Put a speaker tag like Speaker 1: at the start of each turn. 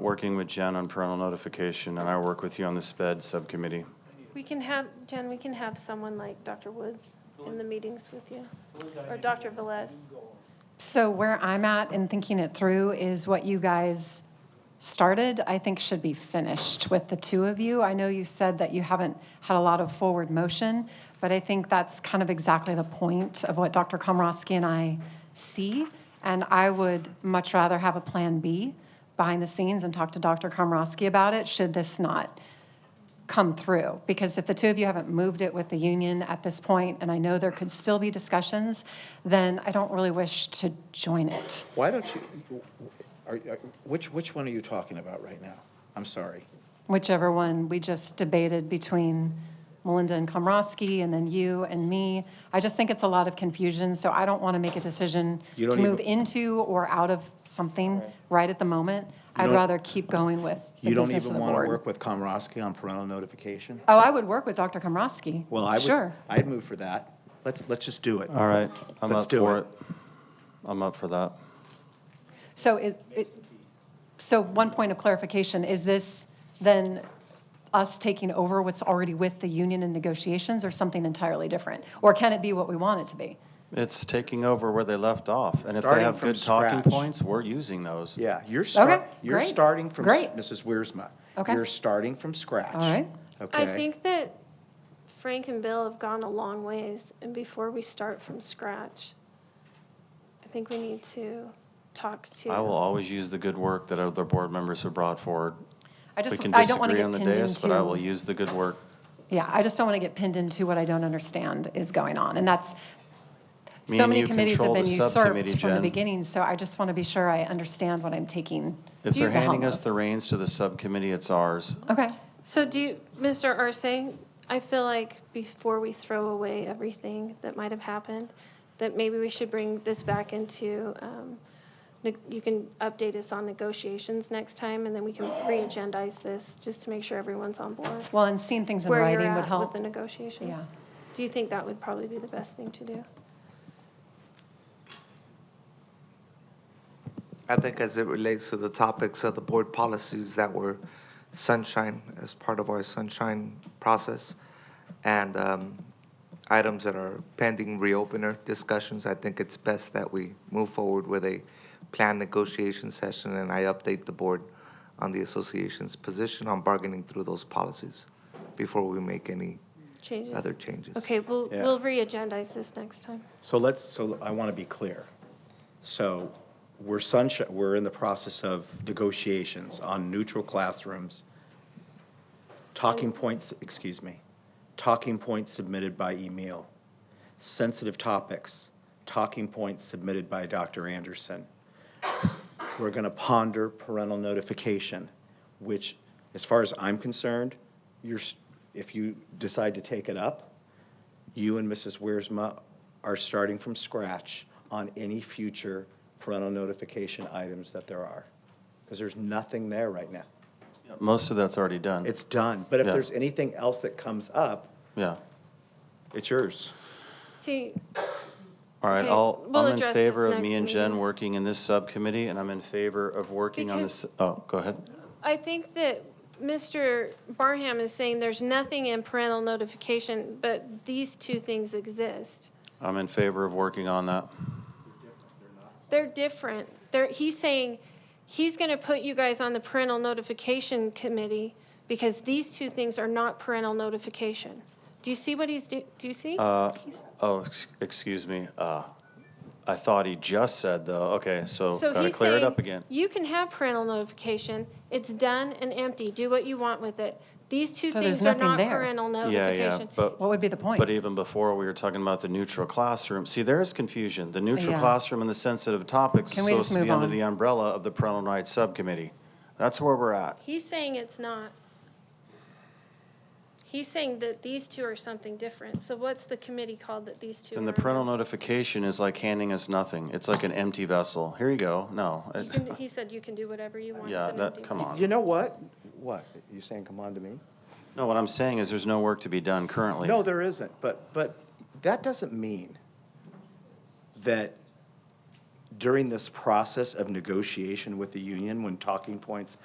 Speaker 1: working with Jen on parental notification, and I work with you on the SPED subcommittee.
Speaker 2: We can have, Jen, we can have someone like Dr. Woods in the meetings with you, or Dr. Velez.
Speaker 3: So where I'm at in thinking it through is what you guys started, I think should be finished with the two of you. I know you said that you haven't had a lot of forward motion, but I think that's kind of exactly the point of what Dr. Komrosky and I see. And I would much rather have a Plan B behind the scenes and talk to Dr. Komrosky about it, should this not come through, because if the two of you haven't moved it with the union at this point, and I know there could still be discussions, then I don't really wish to join it.
Speaker 4: Why don't you, are, are- which, which one are you talking about right now? I'm sorry.
Speaker 3: Whichever one we just debated between Melinda and Komrosky, and then you and me, I just think it's a lot of confusion, so I don't want to make a decision
Speaker 4: You
Speaker 3: to
Speaker 4: don't
Speaker 3: move
Speaker 4: even-
Speaker 3: into or out of something right at the moment. I'd
Speaker 4: don't-
Speaker 3: rather keep going with the
Speaker 4: You don't
Speaker 3: business of the
Speaker 4: even want to
Speaker 3: board.
Speaker 4: work with Komorowski on parental notification?
Speaker 3: Oh, I would work with Dr. Komrosky.
Speaker 4: Well, I would,
Speaker 3: Sure.
Speaker 4: I'd move for that. Let's, let's just do it.
Speaker 1: All right, I'm
Speaker 4: Let's
Speaker 1: up
Speaker 4: do
Speaker 1: for
Speaker 4: it.
Speaker 1: it. I'm up for that.
Speaker 3: So is, it- so one point of clarification, is this then us taking over what's already with the union in negotiations or something entirely different? Or can it be what we want it to be?
Speaker 1: It's taking over where they left off, and if they
Speaker 4: Starting
Speaker 1: have
Speaker 4: from
Speaker 1: good talking
Speaker 4: scratch.
Speaker 1: points, we're using those.
Speaker 4: Yeah, you're start,
Speaker 3: Okay,
Speaker 4: you're
Speaker 3: great,
Speaker 4: starting from, s-
Speaker 3: great.
Speaker 4: Mrs. Wiersma.
Speaker 3: Okay.
Speaker 4: You're starting from scratch.
Speaker 3: All right.
Speaker 2: I
Speaker 4: Okay?
Speaker 2: think that Frank and Bill have gone a long ways, and before we start from scratch, I think we need to talk to.
Speaker 1: I will always use the good work that other board members have brought forward.
Speaker 3: I
Speaker 1: We
Speaker 3: just,
Speaker 1: can
Speaker 3: I don't want to
Speaker 1: disagree on
Speaker 3: get
Speaker 1: the
Speaker 3: pinned
Speaker 1: dais,
Speaker 3: into.
Speaker 1: but I will use the good work.
Speaker 3: Yeah, I just don't want to get pinned into what I don't understand is going on. And that's,
Speaker 1: Me
Speaker 3: so
Speaker 1: and
Speaker 3: many
Speaker 1: you
Speaker 3: committees have
Speaker 1: control the
Speaker 3: been
Speaker 1: subcommittee,
Speaker 3: usurped from the
Speaker 1: Jen.
Speaker 3: beginning, so I just want to be sure I understand what I'm taking.
Speaker 1: If
Speaker 3: due
Speaker 1: they're
Speaker 3: the
Speaker 1: handing
Speaker 3: helm
Speaker 1: us
Speaker 3: of.
Speaker 1: the reins to the subcommittee, it's ours.
Speaker 3: Okay,
Speaker 2: So do you, Mr. Arce, I feel like before we throw away everything that might have happened, that maybe we should bring this back into, um, neg- you can update us on negotiations next time, and then we can re-agendize this, just to make sure everyone's on board.
Speaker 3: well, and seeing things in
Speaker 2: Where you're
Speaker 3: writing
Speaker 2: at
Speaker 3: would
Speaker 2: with
Speaker 3: help.
Speaker 2: the negotiations.
Speaker 3: Yeah.
Speaker 2: Do you think that would probably be the best thing to do?
Speaker 5: I think as it relates to the topics of the board policies that were sunshine as part of our sunshine process and um, items that are pending reopener discussions, I think it's best that we move forward with a planned negotiation session and I update the board on the association's position on bargaining through those policies before we make any
Speaker 2: Changes?
Speaker 5: other changes.
Speaker 2: Okay, we'll,
Speaker 4: Yeah.
Speaker 2: we'll re-agendize this next time.
Speaker 4: So let's, so I want to be clear. So we're sunshine, we're in the process of negotiations on neutral classrooms. Talking points, excuse me, talking points submitted by email, sensitive topics, talking points submitted by Dr. Anderson. We're going to ponder parental notification, which, as far as I'm concerned, you're, s- if you decide to take it up, you and Mrs. Wiersma are starting from scratch on any future parental notification items that there are. Because there's nothing there right now.
Speaker 1: Most of that's already done.
Speaker 4: It's done. But if
Speaker 1: Yeah.
Speaker 4: there's anything else that comes up,
Speaker 1: Yeah.
Speaker 4: it's yours.
Speaker 2: See,
Speaker 1: All right,
Speaker 2: Okay,
Speaker 1: I'll,
Speaker 2: we'll
Speaker 1: I'm in
Speaker 2: address
Speaker 1: favor
Speaker 2: this
Speaker 1: of me
Speaker 2: next
Speaker 1: and Jen
Speaker 2: meeting.
Speaker 1: working in this subcommittee, and I'm in favor of working on
Speaker 2: Because-
Speaker 1: this, oh, go ahead.
Speaker 2: I think that Mr. Barham is saying there's nothing in parental notification, but these two things exist.
Speaker 1: I'm in favor of working on that.
Speaker 2: They're different. They're, he's saying, he's gonna put you guys on the parental notification committee because these two things are not parental notification. Do you see what he's, do, do you see? He's-
Speaker 1: Oh, ex- excuse me. Uh, I thought he just said, though, okay, so
Speaker 2: So
Speaker 1: oh, gotta
Speaker 2: he's
Speaker 1: clear it
Speaker 2: saying,
Speaker 1: up again.
Speaker 2: you can have parental notification, it's done and empty, do what you want with it. These two
Speaker 3: So there's
Speaker 2: things are
Speaker 3: nothing
Speaker 2: not
Speaker 3: there.
Speaker 2: parental
Speaker 1: Yeah, yeah,
Speaker 2: notification.
Speaker 1: but,
Speaker 3: What would be the point?
Speaker 1: but even before, we were talking about the neutral classroom. See, there is confusion. The neutral
Speaker 3: Yeah.
Speaker 1: classroom and the sensitive topics
Speaker 3: Can
Speaker 1: are
Speaker 3: we just
Speaker 1: supposed to be
Speaker 3: move
Speaker 1: under
Speaker 3: on?
Speaker 1: the umbrella of the parental rights subcommittee. That's where we're at.
Speaker 2: He's saying it's not. He's saying that these two are something different. So what's the committee called that these two are?
Speaker 1: And the parental notification is like handing us nothing. It's like an empty vessel. Here you go. No.
Speaker 2: You can- He said you can do whatever you want. It's
Speaker 1: Yeah,
Speaker 2: an
Speaker 1: that,
Speaker 2: empty
Speaker 1: come
Speaker 2: box.
Speaker 1: on.
Speaker 4: You know what? What? You saying come on to me?
Speaker 1: No, what I'm saying is there's no work to be done currently.
Speaker 4: No, there isn't, but, but that doesn't mean that during this process of negotiation with the union, when talking points